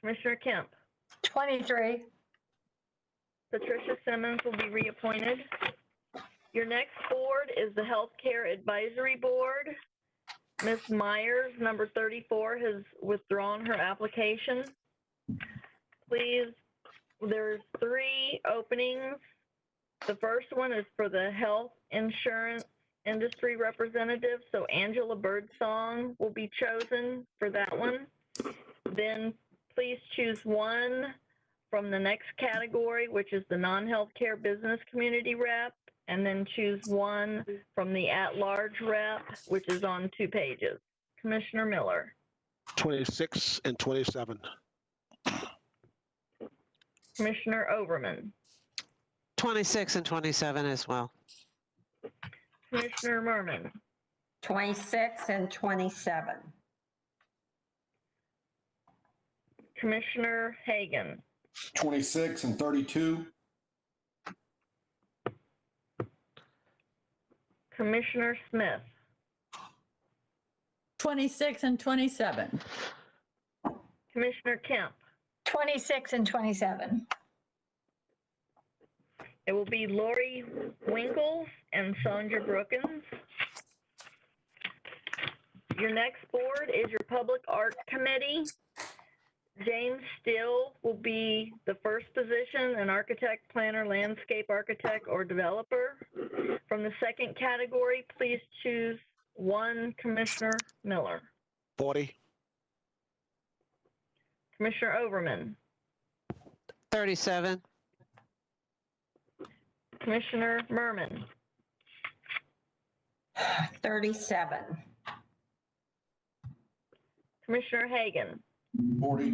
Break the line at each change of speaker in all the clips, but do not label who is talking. Commissioner Kemp,
23.
Patricia Simmons will be reappointed. Your next board is the Healthcare Advisory Board. Ms. Myers, number 34, has withdrawn her application. Please, there's three openings. The first one is for the Health Insurance Industry Representative, so Angela Birdsong will be chosen for that one. Then please choose one from the next category, which is the non-healthcare business community rep, and then choose one from the at-large rep, which is on two pages. Commissioner Miller,
26 and 27.
Commissioner Overman,
26 and 27 as well.
Commissioner Merman,
26 and 27.
Commissioner Hagan,
26 and 32,
Commissioner Smith,
26 and 27.
Commissioner Kemp.
26 and 27.
It will be Lori Winkles and Sandra Brookins. Your next board is your Public Art Committee. James Still will be the first position, an architect, planner, landscape architect, or developer. From the second category, please choose one Commissioner Miller.
40,
Commissioner Overman,
37,
Commissioner Merman,
37.
Commissioner Hagan,
40,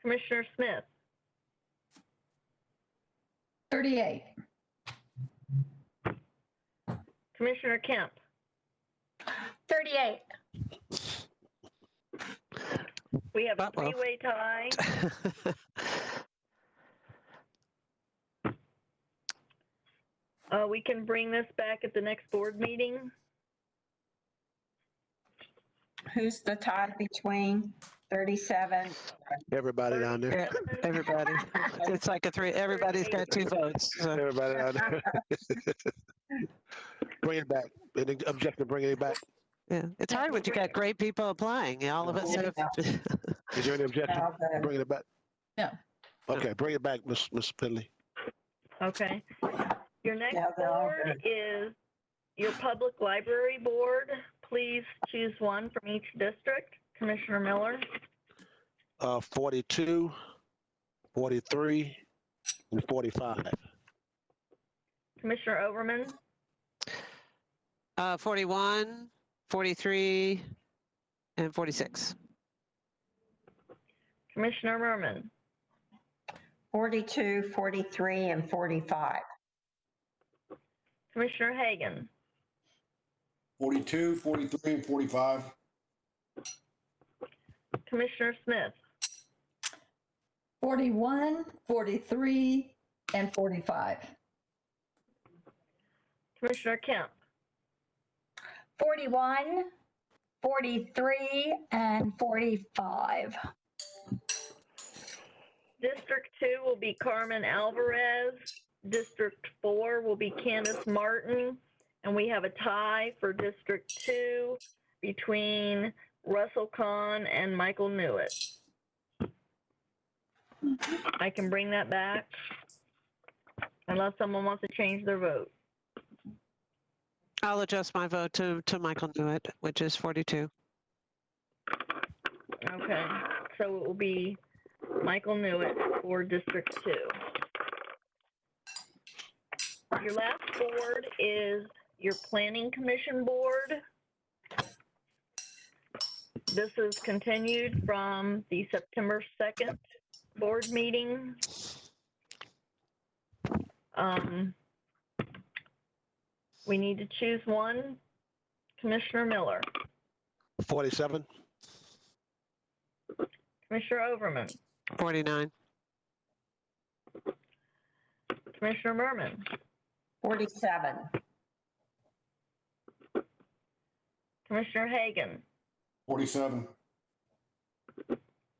Commissioner Smith,
38.
Commissioner Kemp,
38.
We have a
Uh-oh.
three-way tie. Uh, we can bring this back at the next board meeting.
Who's the tie between 37?
everybody down there.
Yeah, everybody. It's like a three, everybody's got two votes. so-
Everybody down there. Bring it back. Any objection, bringing it back.
Yeah, it's hard when you got great people applying. and All of us have,
Is there any objection?
Now the-
Bringing it back?
No.
Okay, bring it back, Miss Miss Finley.
Okay. Your next
Yeah, they're all
board is your public library board. Please choose one from each district. Commissioner Miller,
Uh, 42, 43, and 45.
Commissioner Overman,
uh, 41, 43, and 46.
Commissioner Merman,
42, 43, and 45.
Commissioner Hagan,
42, 43, and 45,
Commissioner Smith,
41, 43, and 45.
Commissioner Kemp,
41, 43, and 45.
District two will be Carmen Alvarez. District four will be Candace Martin. And we have a tie for District two between Russell Kahn and Michael Newitt. I can bring that back unless someone wants to change their vote.
I'll adjust my vote to, to Michael Newitt, which is 42.
Okay, so it will be Michael Newitt for District Two. Your last board is your Planning Commission Board. This is continued from the September 2nd board meeting. Um, We need to choose one. Commissioner Miller,
47,
Commissioner Overman,
49,
Commissioner Merman,
47.
Commissioner Hagan,
47,